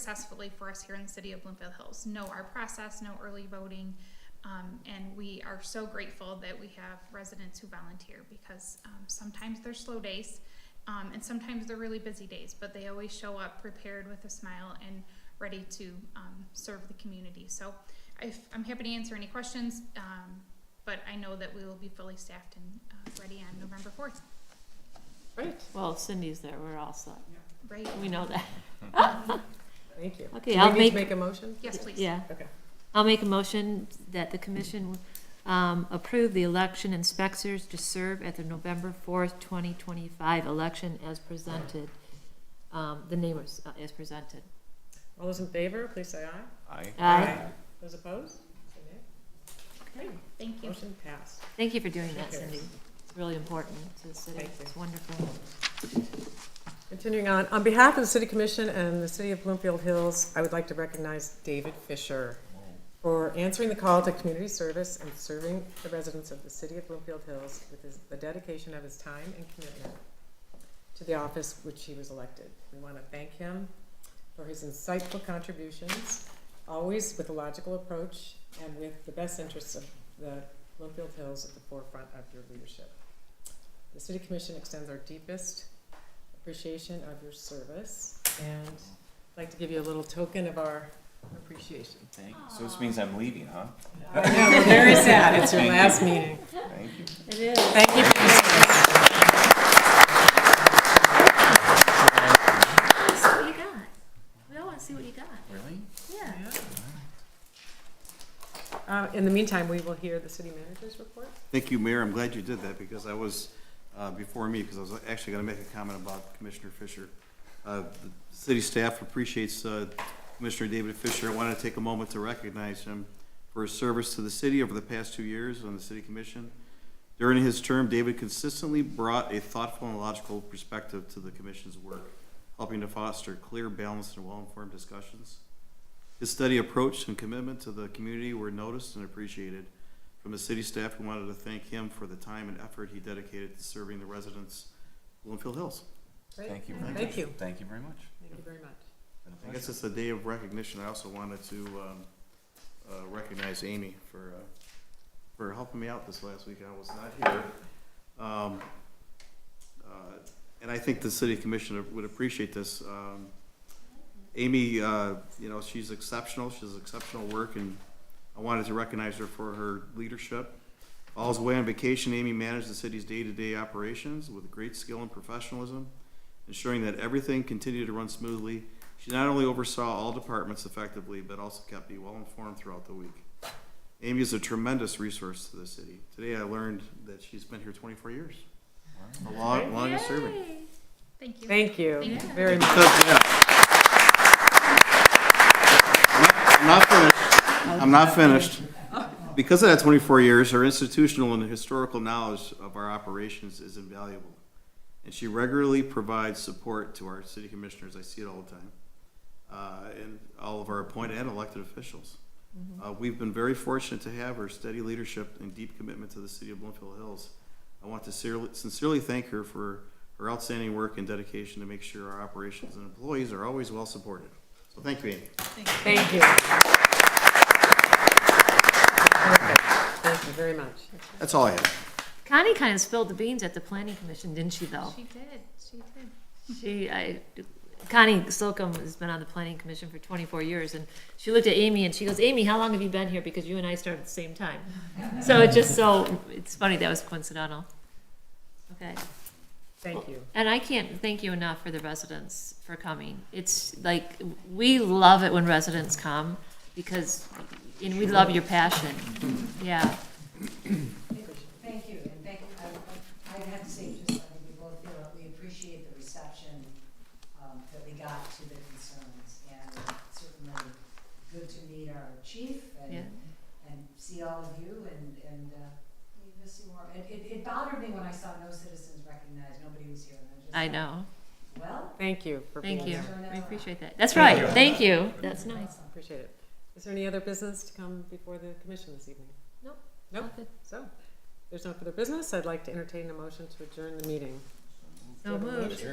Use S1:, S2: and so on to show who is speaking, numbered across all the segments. S1: successfully for us here in the city of Bloomfield Hills. Know our process, know early voting, um, and we are so grateful that we have residents who volunteer because um, sometimes they're slow days, um, and sometimes they're really busy days, but they always show up prepared with a smile and ready to um, serve the community. So if, I'm happy to answer any questions, um, but I know that we will be fully staffed and uh, ready on November 4th.
S2: Great,
S3: Well, if Cindy's there, we're all set.
S1: Right?
S3: We know that.
S2: thank you.
S3: Okay,
S2: Do we
S3: I'll
S2: need to
S3: make-
S2: Make a motion?
S1: Yes, please.
S3: Yeah.
S2: Okay.
S3: I'll make a motion that the commission um, approve the election inspectors to serve at the November fourth, twenty twenty-five election as presented. Um, The name is, uh, as presented. Uh,
S2: All those in favor, please say aye.
S4: Aye.
S3: Aye.
S2: Those opposed? Say nay. Okay,
S1: Thank you.
S2: motion passed.
S3: Thank you for doing that,
S2: Sure.
S3: Cindy. It's really important to the city.
S2: Thank you.
S3: It's wonderful.
S2: Continuing on, on behalf of the City Commission and the City of Bloomfield Hills, I would like to recognize David Fisher for answering the call to community service and serving the residents of the City of Bloomfield Hills with his- the dedication of his time and commitment to the office which he was elected. We want to thank him for his insightful contributions, always with a logical approach and with the best interests of the Bloomfield Hills at the forefront of your leadership. The City Commission extends our deepest appreciation of your service and I'd like to give you a little token of our appreciation.
S4: Thank you. So this means I'm leaving, huh?
S2: I know, we're very sad. It's your
S4: Thank you.
S2: last meeting.
S4: Thank you.
S3: It is.
S2: Thank you for your service.
S3: See what you got. We all want to see what you got.
S4: Really?
S3: Yeah.
S2: Uh, in the meantime, we will hear the city manager's report.
S5: Thank you, Mayor. I'm glad you did that because I was, uh, before me, because I was actually going to make a comment about Commissioner Fisher. Uh, The City staff appreciates uh, Commissioner David Fisher. I wanted to take a moment to recognize him for his service to the city over the past two years on the City Commission. During his term, David consistently brought a thoughtful and logical perspective to the commission's work, helping to foster clear, balanced, and well-informed discussions. His steady approach and commitment to the community were noticed and appreciated. From the city staff, we wanted to thank him for the time and effort he dedicated to serving the residents of Bloomfield Hills.
S2: Great.
S4: Thank you very much.
S2: Thank you.
S4: Thank you very much.
S2: Thank you very much.
S4: Been a
S5: I guess
S4: pleasure.
S5: it's a day of recognition. I also wanted to um, uh, recognize Amy for, uh, for helping me out this last week. I was not here. Um, uh, And I think the city commissioner would appreciate this. Um, Amy, uh, you know, she's exceptional. She does exceptional work, and I wanted to recognize her for her leadership. While I was away on vacation, Amy managed the city's day-to-day operations with great skill and professionalism, ensuring that everything continued to run smoothly she not only oversaw all departments effectively, but also kept me well informed throughout the week. Amy is a tremendous resource to the city. Today I learned that she's been here 24 years,
S4: Wow.
S5: the long, longest serving.
S1: Thank you.
S2: Thank you
S1: Thank you.
S2: very much.
S5: Because, yeah. I'm not- I'm not finished. I'm not finished. Because of that twenty-four years, her institutional and historical knowledge of our operations is invaluable. And she regularly provides support to our city commissioners, I see it all the time, uh, and all of our appointed and elected officials. Uh, we've been very fortunate to have her steady leadership and deep commitment to the city of Bloomfield Hills. I want to sincerely- sincerely thank her for her outstanding work and dedication to make sure our operations and employees are always well supported. So thank you, Amy.
S2: Thank you. Perfect. Thank you very much.
S5: That's all I have.
S3: Connie kind of spilled the beans at the planning commission, didn't she, though?
S1: She did. She did.
S3: She, I, Connie Slocum has been on the planning commission for twenty-four years, and she looked at Amy and she goes, Amy, how long have you been here? Because you and I started at the same time. So it just so, it's funny, that was coincidental. Okay,
S2: Thank you.
S3: and I can't thank you enough for the residents for coming. It's like, we love it when residents come, because, and we love your passion, yeah.
S6: Thank you, and thank, I, I have to say, just, I think we both feel that we appreciate the reception, um, that we got to the concerns, and it's certainly good to meet our chief
S3: Yeah.
S6: and, and see all of you, and, and, uh, we miss you more. It, it, it bothered me when I saw no citizens recognized, nobody was here, and I just.
S3: I know,
S6: thought, Well,
S2: Thank you for being
S3: thank you,
S2: here.
S3: we appreciate that. That's right, thank you, that's nice.
S6: thanks.
S2: Appreciate it. Is there any other business to come before the commission this evening?
S3: Nope.
S2: Nope. So, if there's no further business. I'd like to entertain a motion to adjourn the meeting.
S3: So moved.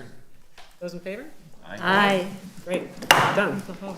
S2: Those in favor?
S4: Aye.
S3: Aye.
S2: Great, done.